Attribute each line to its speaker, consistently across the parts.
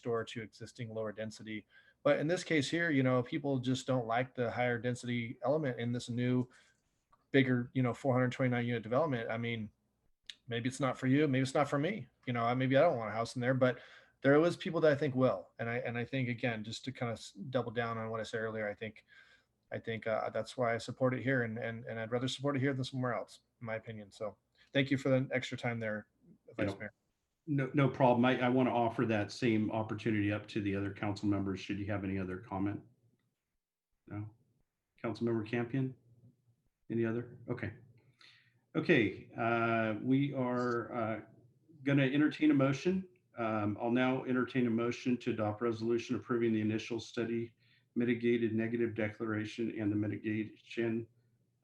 Speaker 1: next-door to existing lower density. But in this case here, you know, people just don't like the higher density element in this new bigger, you know, 429 unit development. I mean, maybe it's not for you, maybe it's not for me. You know, I maybe I don't want a house in there, but there was people that I think will. And I and I think again, just to kind of double down on what I said earlier, I think I think uh, that's why I support it here, and and and I'd rather support it here than somewhere else, in my opinion. So, thank you for the extra time there, Vice
Speaker 2: Yeah.
Speaker 1: Mayor.
Speaker 2: No, no problem. I, I want to offer that same opportunity up to the other council members. Should you have any other comment? No? Councilmember Campion? Any other? Okay. Okay, uh, we are uh, going to entertain a motion. Um, I'll now entertain a motion to adopt resolution approving the initial study mitigated negative declaration and the mitigation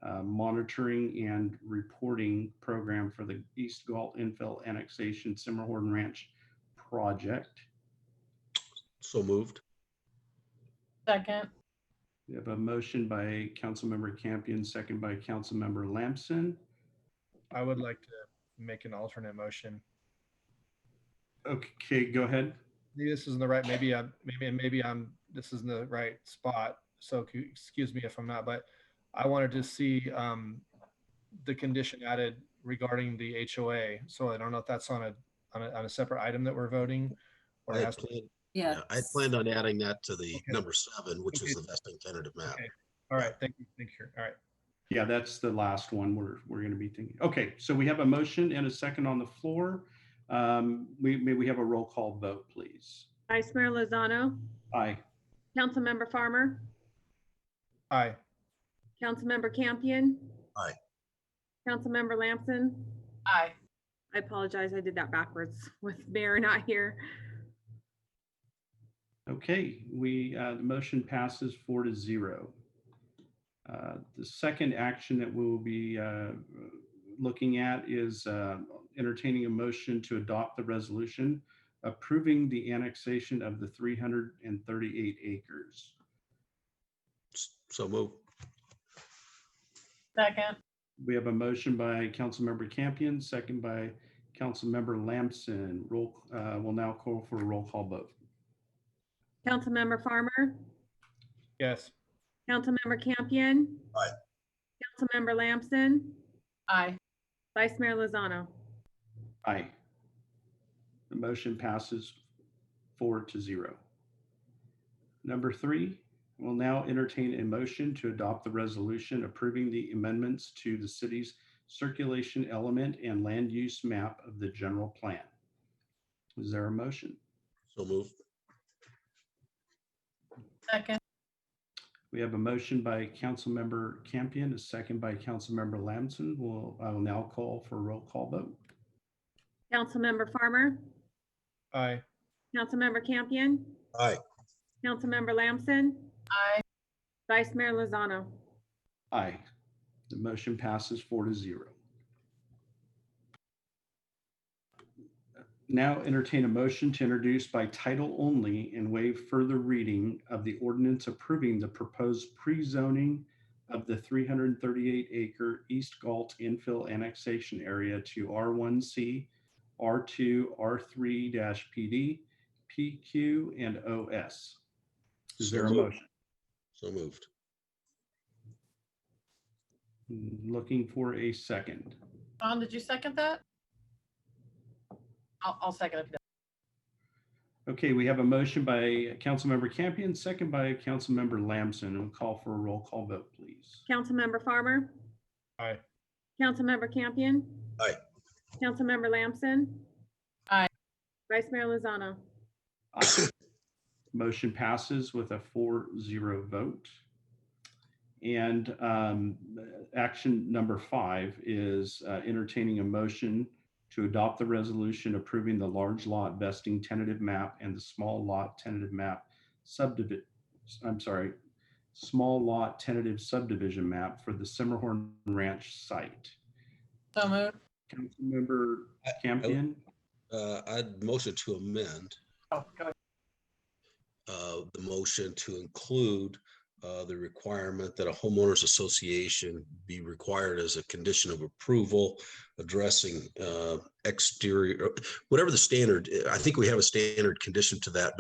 Speaker 2: uh, monitoring and reporting program for the East Galt infill annexation Simmerhorn Ranch project.
Speaker 3: So moved.
Speaker 4: Second,
Speaker 2: We have a motion by Councilmember Campion, second by Councilmember Lamson.
Speaker 1: I would like to make an alternate motion.
Speaker 2: Okay, go ahead.
Speaker 1: Maybe this isn't the right. Maybe I'm maybe and maybe I'm this isn't the right spot. So c- excuse me if I'm not. But I wanted to see um, the condition added regarding the HOA. So I don't know if that's on a on a, on a separate item that we're voting, or
Speaker 3: I
Speaker 1: it
Speaker 3: had
Speaker 1: has to
Speaker 3: planned-
Speaker 5: Yeah.
Speaker 3: yeah, I had planned on adding that to the
Speaker 1: Okay.
Speaker 3: number seven, which
Speaker 1: Okay.
Speaker 3: is the vesting tentative map.
Speaker 1: Okay. All right, thank you, thank you. All right,
Speaker 2: Yeah, that's the last one we're, we're going to be thinking. Okay, so we have a motion and a second on the floor. Um, We, may we have a roll call vote, please?
Speaker 6: Vice Mayor Lozano,
Speaker 2: Aye.
Speaker 6: Councilmember Farmer,
Speaker 1: aye.
Speaker 6: Councilmember Campion.
Speaker 3: Aye.
Speaker 6: Councilmember Lamson.
Speaker 4: aye.
Speaker 6: I apologize, I did that backwards with Mayor not here.
Speaker 2: Okay, we, uh, the motion passes four to zero. Uh, The second action that we will be uh, looking at is uh, entertaining a motion to adopt the resolution approving the annexation of the 338 acres.
Speaker 3: S- So moved.
Speaker 4: Second,
Speaker 2: We have a motion by Councilmember Campion, second by Councilmember Lamson. Roll, uh, we'll now call for a roll call vote.
Speaker 6: Councilmember Farmer,
Speaker 1: Yes.
Speaker 6: Councilmember Campion.
Speaker 3: Aye.
Speaker 6: Councilmember Lamson,
Speaker 4: aye.
Speaker 6: Vice Mayor Lozano.
Speaker 2: Aye. The motion passes four to zero. Number three, we'll now entertain a motion to adopt the resolution approving the amendments to the city's circulation element and land use map of the general plan. Is there a motion?
Speaker 3: So moved.
Speaker 4: Second,
Speaker 2: We have a motion by Councilmember Campion, a second by Councilmember Lamson. We'll, I will now call for a roll call vote.
Speaker 6: Councilmember Farmer,
Speaker 1: Aye.
Speaker 6: Councilmember Campion,
Speaker 3: Aye.
Speaker 6: Councilmember Lamson,
Speaker 4: aye.
Speaker 6: Vice Mayor Lozano.
Speaker 2: Aye. The motion passes four to zero. Now entertain a motion to introduce by title only and waive further reading of the ordinance approving the proposed pre-zoning of the 338 acre East Galt infill annexation area to R1C, R2, R3-PD, PQ, and OS. Is
Speaker 3: So
Speaker 2: there a
Speaker 3: moved.
Speaker 2: motion?
Speaker 3: So moved.
Speaker 2: Looking for a second.
Speaker 4: Don, did you second that? I'll, I'll second it.
Speaker 2: Okay, we have a motion by Councilmember Campion, second by Councilmember Lamson. We'll call for a roll call vote, please.
Speaker 6: Councilmember Farmer.
Speaker 1: Aye.
Speaker 6: Councilmember Campion.
Speaker 3: Aye.
Speaker 6: Councilmember Lamson.
Speaker 4: Aye.
Speaker 6: Vice Mayor Lozano.
Speaker 2: Aye. Motion passes with a four zero vote. And um, action number five is uh, entertaining a motion to adopt the resolution approving the large lot vesting tentative map and the small lot tentative map subdivision, I'm sorry, small lot tentative subdivision map for the Simmerhorn Ranch site.
Speaker 4: So moved.
Speaker 2: Councilmember Campion?
Speaker 3: Uh, I'd motion to amend
Speaker 4: Oh, go ahead.
Speaker 3: uh, the motion to include uh, the requirement that a homeowners association be required as a condition of approval, addressing uh, exterior, whatever the standard, I think we have a standard condition to that,